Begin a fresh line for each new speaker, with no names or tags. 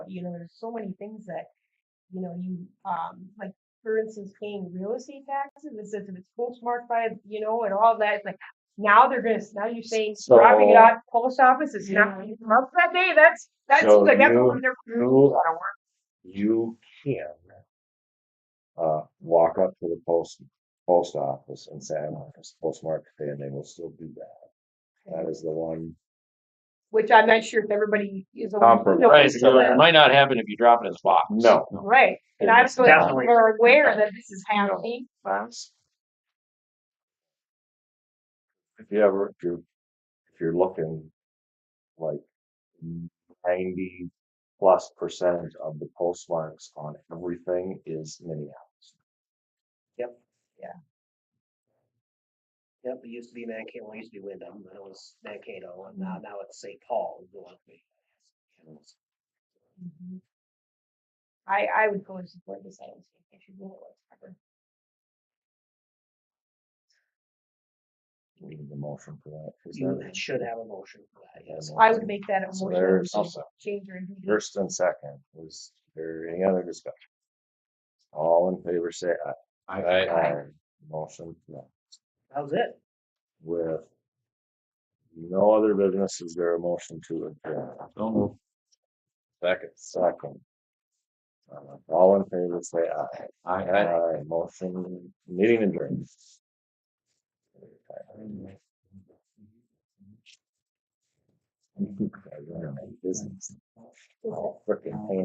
you know, there's so many things that, you know, you, um, like, for instance, paying real estate taxes, it says if it's postmarked by, you know, and all that, it's like, now they're gonna, now you're saying dropping it
So-
off post office, it's not, gonna come up that day, that's, that's
So
good, that's
you-
one of their.
you- you can uh, walk up to the post, post office and say, I want this postmark today, and they will still do that. That is the one.
Which I'm not sure if everybody is. aware-
Compromise.
Right, so
Yeah.
it might not happen if you drop it in the box.
No.
Right, and I'm so,
Definitely.
we're aware that this is happening,
If you ever, if you're, if you're looking like ninety plus percent of the postmarks on everything is Minneapolis.
Yep, it used to be Mankato, well, it used to be Wyndham, then it was Mankato, and now, now it's St. Paul. is the one.
I, I would go and support this, I don't think it should be whatsoever.
We need a motion for that. Is
You
Mm.
there-
should have a motion for that, yes.
I would make that a
So
motion,
there's-
to change or. anything.
First and second, was there any other discussion? All in favor, say aye.
Aye.
Motion, no.
That was it.
with no other business, is there a motion to adjourn?
Don't move.
Second. Second. Uh, All in favor, say aye.
I,
Aye, motion, meeting adjourned. Business. Oh, frickin' pain.